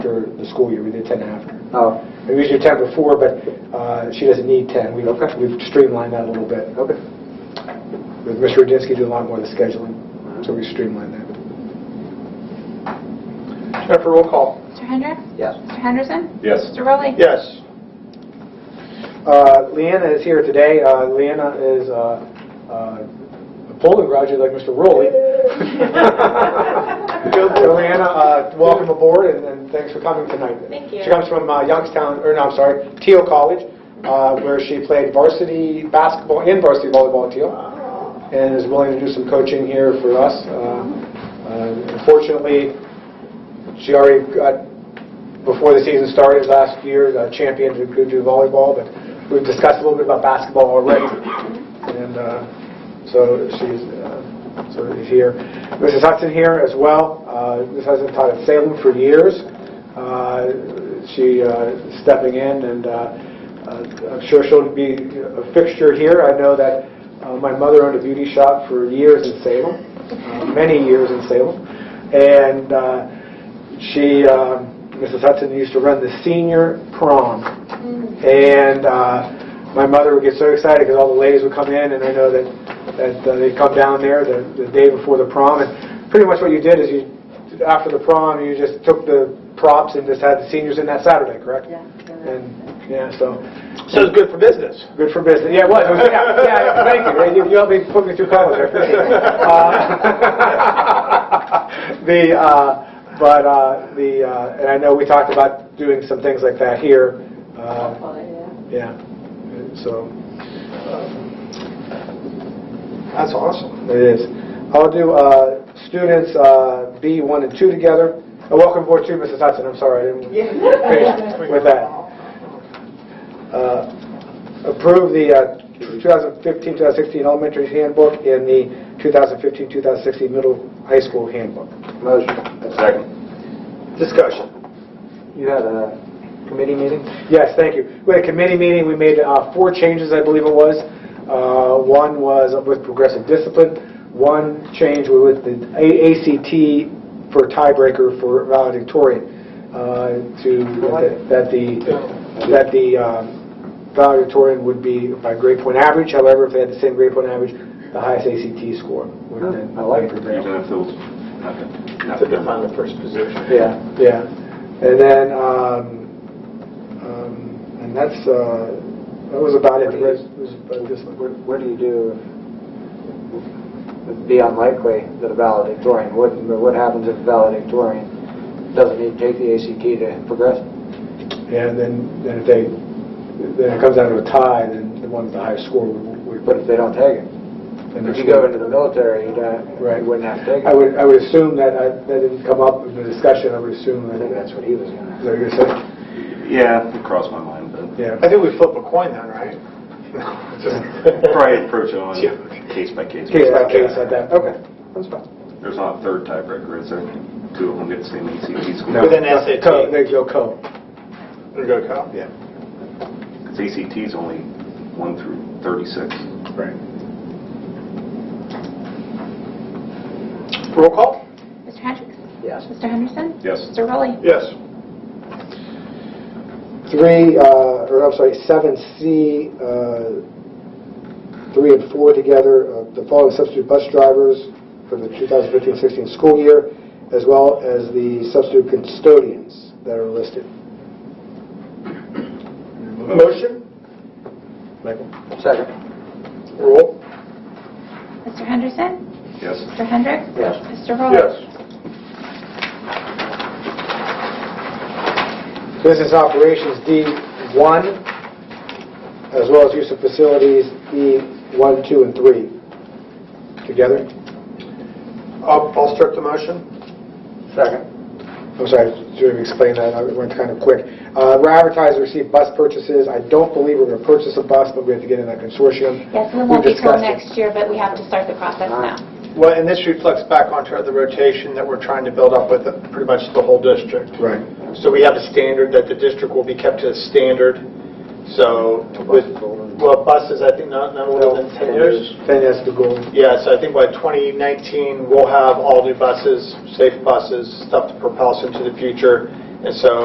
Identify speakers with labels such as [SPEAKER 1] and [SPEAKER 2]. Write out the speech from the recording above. [SPEAKER 1] after the school year, we did 10 after.
[SPEAKER 2] Oh,
[SPEAKER 1] We usually do 10 before, but uh, she doesn't need 10. We've
[SPEAKER 2] Okay.
[SPEAKER 1] we've streamlined that a little bit.
[SPEAKER 2] okay.
[SPEAKER 1] With Mr. Rudinsky, do a lot more of the scheduling, so we streamlined that.
[SPEAKER 3] Jennifer, roll call.
[SPEAKER 4] Mr. Hendricks?
[SPEAKER 2] Yes.
[SPEAKER 4] Mr. Henderson?
[SPEAKER 3] Yes.
[SPEAKER 4] Mr. Rowley?
[SPEAKER 3] Yes.
[SPEAKER 1] Uh, Leanna is here today. Uh, Leanna is uh, uh, a polling graduate like Mr. Rowley. So Leanna, uh, welcome aboard and- and thanks for coming tonight.
[SPEAKER 5] Thank you.
[SPEAKER 1] She comes from uh, Youngstown, or no, I'm sorry, Teal College, uh, where she played varsity basketball and varsity volleyball at Teal, and is willing to do some coaching here for us. Uh, uh, Unfortunately, she already got before the season started last year, the champion to go do volleyball, but we've discussed a little bit about basketball already. And uh, so she's, uh, so is here. Mrs. Hudson here as well. Uh, Mrs. Hudson taught at Salem for years. Uh, She uh, is stepping in, and uh, uh, I'm sure she'll be a fixture here. I know that uh, my mother owned a beauty shop for years in Salem, uh, many years in Salem. And uh, she, um, Mrs. Hudson used to run the senior prom. And uh, my mother would get so excited because all the ladies would come in, and I know that, that uh, they'd come down there the, the day before the prom. And pretty much what you did is you, after the prom, you just took the props and just had the seniors in that Saturday, correct? Yeah. And, yeah, so,
[SPEAKER 3] So it's good for business.
[SPEAKER 1] good for business. Yeah, it was. It was- yeah, yeah, thank you. You- You helped me put me through college. I appreciate it. Uh, The, uh, but, uh, the, uh, and I know we talked about doing some things like that here. uh, Yeah, so,
[SPEAKER 3] That's awesome.
[SPEAKER 1] it is. I'll do uh, students uh, B, 1, and 2 together. Uh, Welcome aboard too, Mrs. Hudson. I'm sorry, I didn't finish with that. Uh, approve the uh, 2015-2016 elementary handbook and the 2015-2016 middle high school handbook.
[SPEAKER 2] Motion.
[SPEAKER 3] Second. Discussion.
[SPEAKER 2] You had a committee meeting?
[SPEAKER 1] Yes, thank you. We had a committee meeting, we made uh, four changes, I believe it was. Uh, One was with progressive discipline, one change was with the A- ACT for tiebreaker for valedictorian, uh, to, that the, that the um, valedictorian would be by grade point average, however, if they had the same grade point average, the highest ACT score would then
[SPEAKER 2] I like it.
[SPEAKER 1] prevail.
[SPEAKER 6] Even if there was nothing.
[SPEAKER 3] To define the first position.
[SPEAKER 2] Yeah.
[SPEAKER 1] Yeah, and then, um, um, and that's, uh, that was about it. The rest was about this one.
[SPEAKER 2] What what do you do if it'd be unlikely that a valedictorian wouldn't, but what happens if a valedictorian doesn't even take the ACT to progress?
[SPEAKER 1] And then, then if they, then it comes down to a tie, then the one with the highest score would. would-
[SPEAKER 2] But if they don't take it?
[SPEAKER 1] then
[SPEAKER 2] If
[SPEAKER 1] they're
[SPEAKER 2] you go
[SPEAKER 1] screwed.
[SPEAKER 2] into the military, you don't,
[SPEAKER 1] Right.
[SPEAKER 2] you wouldn't have to take it.
[SPEAKER 1] I would, I would assume that, I- that didn't come up in the discussion, I would assume
[SPEAKER 2] I
[SPEAKER 1] that,
[SPEAKER 2] think that's what he was
[SPEAKER 1] is that
[SPEAKER 2] gonna.
[SPEAKER 1] what you're saying?
[SPEAKER 6] Yeah, it crossed my mind, but
[SPEAKER 1] Yeah.
[SPEAKER 3] I think we flip a coin then, right?
[SPEAKER 6] probably approach it on
[SPEAKER 3] Yeah.
[SPEAKER 6] a case by case.
[SPEAKER 1] Case by case, like that, okay.
[SPEAKER 3] That's fine.
[SPEAKER 6] There's not a third tiebreaker, is there? Two of them get the same ACT score.
[SPEAKER 1] No.
[SPEAKER 3] Within SAT.
[SPEAKER 1] Co, there you go, co.
[SPEAKER 3] There you go, Kyle.
[SPEAKER 1] Yeah.
[SPEAKER 6] Because ACT E is only one through 36.
[SPEAKER 1] Right.
[SPEAKER 3] Roll call?
[SPEAKER 4] Mr. Hendricks?
[SPEAKER 2] Yes.
[SPEAKER 4] Mr. Henderson?
[SPEAKER 6] Yes.
[SPEAKER 4] Mr. Rowley?
[SPEAKER 3] Yes.
[SPEAKER 1] three, uh, or I'm sorry, seven C, uh, three and four together, uh, the following substitute bus drivers for the 2015-16 school year, as well as the substitute custodians that are listed.
[SPEAKER 3] Motion?
[SPEAKER 1] Michael?
[SPEAKER 2] Second.
[SPEAKER 3] Roll?
[SPEAKER 4] Mr. Henderson?
[SPEAKER 6] Yes.
[SPEAKER 4] Mr. Hendricks?
[SPEAKER 2] Yes.
[SPEAKER 4] Mr. Rowley?
[SPEAKER 1] Business operations, D1, as well as use of facilities, E1, 2, and 3. Together?
[SPEAKER 3] I'll I'll start the motion.
[SPEAKER 2] Second.
[SPEAKER 1] I'm sorry, to explain that, I went kind of quick. Uh, We're advertised to receive bus purchases. I don't believe we're going to purchase a bus, but we have to get in that consortium.
[SPEAKER 4] Yes, we
[SPEAKER 1] We
[SPEAKER 4] won't be till
[SPEAKER 1] discussed it.
[SPEAKER 4] next year, but we have to start the process
[SPEAKER 2] All right.
[SPEAKER 4] now.
[SPEAKER 3] Well, and this reflects back onto the rotation that we're trying to build up with pretty much the whole district.
[SPEAKER 1] Right.
[SPEAKER 3] So we have a standard that the district will be kept to a standard, so with, well, buses, I think not, not older than 10 years.
[SPEAKER 1] Then that's the goal.
[SPEAKER 3] Yeah, so I think by 2019, we'll have all new buses, safe buses, stuff to propel us into the future, And so